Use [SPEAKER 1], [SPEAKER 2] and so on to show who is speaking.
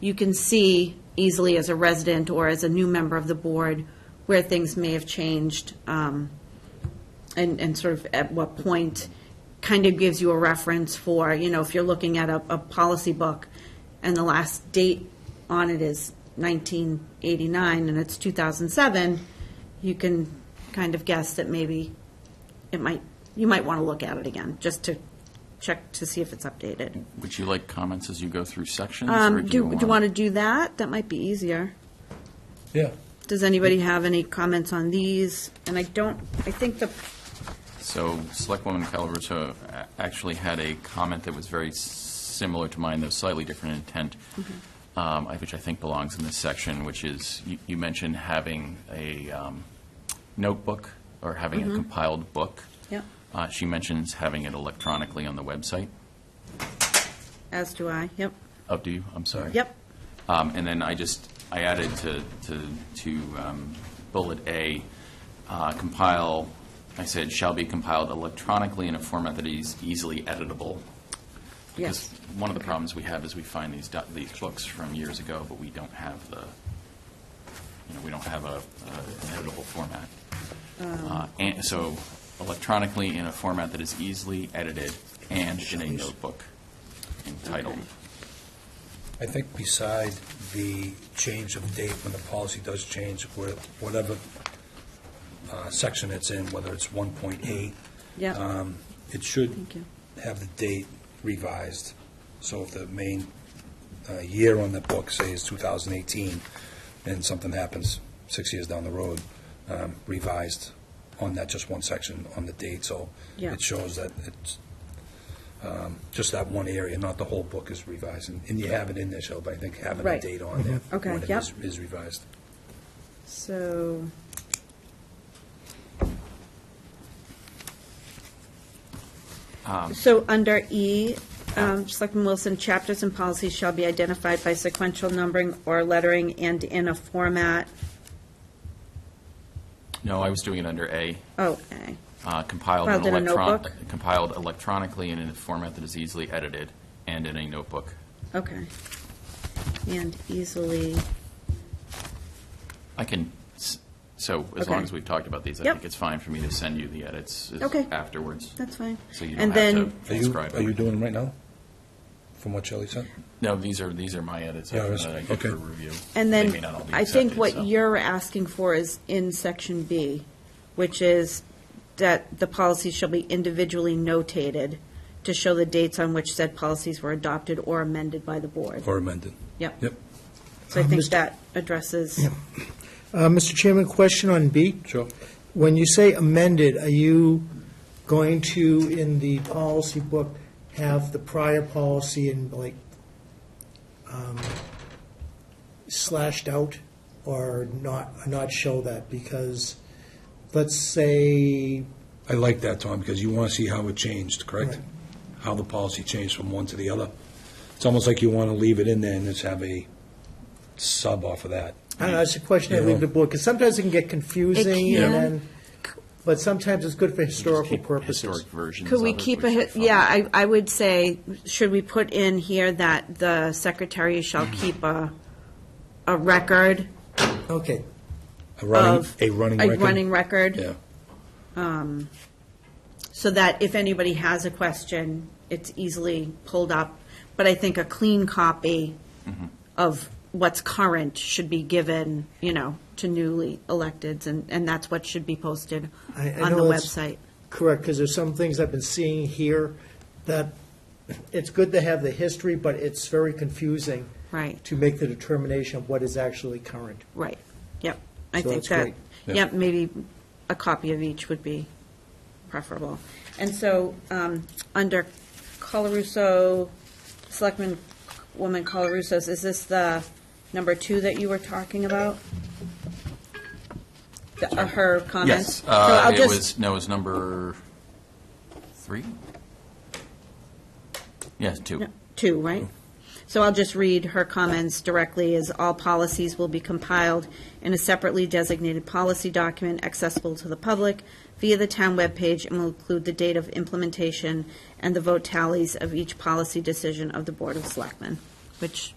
[SPEAKER 1] you can see easily as a resident or as a new member of the board where things may have changed, um, and, and sort of at what point, kind of gives you a reference for, you know, if you're looking at a, a policy book and the last date on it is 1989 and it's 2007, you can kind of guess that maybe it might, you might want to look at it again, just to check to see if it's updated.
[SPEAKER 2] Would you like comments as you go through sections? or
[SPEAKER 1] Um, Do, do you want to do that? That might be easier.
[SPEAKER 3] Yeah.
[SPEAKER 1] Does anybody have any comments on these? And I don't, I think the,
[SPEAKER 2] So Selectwoman Calabroso a- actually had a comment that was very s- similar to mine, though slightly different intent,
[SPEAKER 1] Mm-hmm.
[SPEAKER 2] um, I- which I think belongs in this section, which is, you- you mentioned having a um, notebook or having
[SPEAKER 1] Mm-hmm.
[SPEAKER 2] a compiled book.
[SPEAKER 1] Yep.
[SPEAKER 2] Uh, She mentions having it electronically on the website.
[SPEAKER 1] as do I, yep,
[SPEAKER 2] Oh, do you? I'm sorry.
[SPEAKER 1] yep,
[SPEAKER 2] Um, And then I just, I added to, to, to um, bullet A, uh, compile, I said, shall be compiled electronically in a format that is easily editable.
[SPEAKER 1] yes.
[SPEAKER 2] Because one of the problems we have is we find these, doc- these books from years ago, but we don't have the, you know, we don't have a, uh, an editable format.
[SPEAKER 1] Um.
[SPEAKER 2] Uh, And, so electronically in a format that is easily edited and in a notebook entitled.
[SPEAKER 1] Okay.
[SPEAKER 3] I think beside the change of date, when the policy does change, where- whatever uh, section it's in, whether it's 1.8,
[SPEAKER 1] Yep.
[SPEAKER 3] um, it should
[SPEAKER 1] Thank you.
[SPEAKER 3] have the date revised. So if the main uh, year on the book, say, is 2018, and something happens six years down the road, um, revised on that just one section on the date, so
[SPEAKER 1] Yeah.
[SPEAKER 3] it shows that it's um, just that one area, not the whole book is revised. And and you have it in there, Shelby, I think having a
[SPEAKER 1] Right. Mm-hmm.
[SPEAKER 3] date on there.
[SPEAKER 1] Okay,
[SPEAKER 3] when it
[SPEAKER 1] yep.
[SPEAKER 3] is- Is revised.
[SPEAKER 1] So, so under E, um, Selectman Wilson, chapters and policies shall be identified by sequential numbering or lettering and in a format,
[SPEAKER 2] No, I was doing it under A.
[SPEAKER 1] oh, A.
[SPEAKER 2] uh, compiled
[SPEAKER 1] Filed in a
[SPEAKER 2] in electron,
[SPEAKER 1] notebook?
[SPEAKER 2] compiled electronically and in a format that is easily edited and in a notebook.
[SPEAKER 1] okay. And easily,
[SPEAKER 2] I can, s- so as
[SPEAKER 1] Okay.
[SPEAKER 2] long as we've talked about these, I
[SPEAKER 1] Yep.
[SPEAKER 2] think it's fine for me to send you the edits is-
[SPEAKER 1] Okay.
[SPEAKER 2] afterwards.
[SPEAKER 1] that's fine.
[SPEAKER 2] So you
[SPEAKER 1] And
[SPEAKER 2] don't
[SPEAKER 1] then,
[SPEAKER 2] have to
[SPEAKER 3] Are you,
[SPEAKER 2] transcribe
[SPEAKER 3] are you
[SPEAKER 2] it.
[SPEAKER 3] doing them right now? From what Shelley said?
[SPEAKER 2] No, these are, these are my edits
[SPEAKER 3] Yeah,
[SPEAKER 2] after
[SPEAKER 3] that's-
[SPEAKER 2] that I get
[SPEAKER 3] okay.
[SPEAKER 2] for review.
[SPEAKER 1] And
[SPEAKER 2] They
[SPEAKER 1] then,
[SPEAKER 2] may not all be
[SPEAKER 1] I think
[SPEAKER 2] accepted, so-
[SPEAKER 1] what you're asking for is in section B, which is that the policies shall be individually notated to show the dates on which said policies were adopted or amended by the board.
[SPEAKER 3] Or amended?
[SPEAKER 1] Yep.
[SPEAKER 3] Yep,
[SPEAKER 1] So I think
[SPEAKER 4] Mr.
[SPEAKER 1] that addresses,
[SPEAKER 4] Uh, Mr. Chairman, question on B.
[SPEAKER 3] sure.
[SPEAKER 4] When you say amended, are you going to, in the policy book, have the prior policy in like um, slashed out or not, not show that? Because, let's say,
[SPEAKER 3] I like that, Tom, because you want to see how it changed, correct?
[SPEAKER 4] Right.
[SPEAKER 3] How the policy changed from one to the other. It's almost like you want to leave it in there and just have a sub off of that.
[SPEAKER 4] I don't know, it's a question I leave to the board, because sometimes it can get confusing
[SPEAKER 1] can.
[SPEAKER 4] and then, but sometimes it's good for historical
[SPEAKER 2] Keep
[SPEAKER 4] purposes.
[SPEAKER 2] Historic versions
[SPEAKER 1] could we
[SPEAKER 2] of it,
[SPEAKER 1] keep a,
[SPEAKER 2] which
[SPEAKER 1] hi-
[SPEAKER 2] are fine.
[SPEAKER 1] yeah, I, I would say, should we put in here that the secretary shall keep a, a record
[SPEAKER 4] Okay,
[SPEAKER 3] A running,
[SPEAKER 1] of.
[SPEAKER 3] a running record?
[SPEAKER 1] A running record?
[SPEAKER 3] Yeah,
[SPEAKER 1] so that if anybody has a question, it's easily pulled up. But I think a clean copy of what's current should be given, you know, to newly electeds, and, and that's what should be posted
[SPEAKER 4] I- I
[SPEAKER 1] on the
[SPEAKER 4] know it's-
[SPEAKER 1] website.
[SPEAKER 4] Correct, because there's some things I've been seeing here that it's good to have the history, but it's very confusing
[SPEAKER 1] Right,
[SPEAKER 4] to make the determination of what is actually current.
[SPEAKER 1] right, yep. I
[SPEAKER 4] So
[SPEAKER 1] think
[SPEAKER 4] that's
[SPEAKER 1] that,
[SPEAKER 4] great.
[SPEAKER 3] Yeah.
[SPEAKER 1] yep, maybe a copy of each would be preferable. And so, um, under Colarusso, Selectman Woman Colaruso's, is this the number two that you were talking about? The- uh, Her comments?
[SPEAKER 2] Yes,
[SPEAKER 1] So
[SPEAKER 2] uh,
[SPEAKER 1] I'll
[SPEAKER 2] it
[SPEAKER 1] just-
[SPEAKER 2] was, no, it was number three? Yes, two.
[SPEAKER 1] No, Two, right? So I'll just read her comments directly, as all policies will be compiled in a separately designated policy document accessible to the public via the town webpage and will include the date of implementation and the vote tallies of each policy decision of the Board of Selectmen, which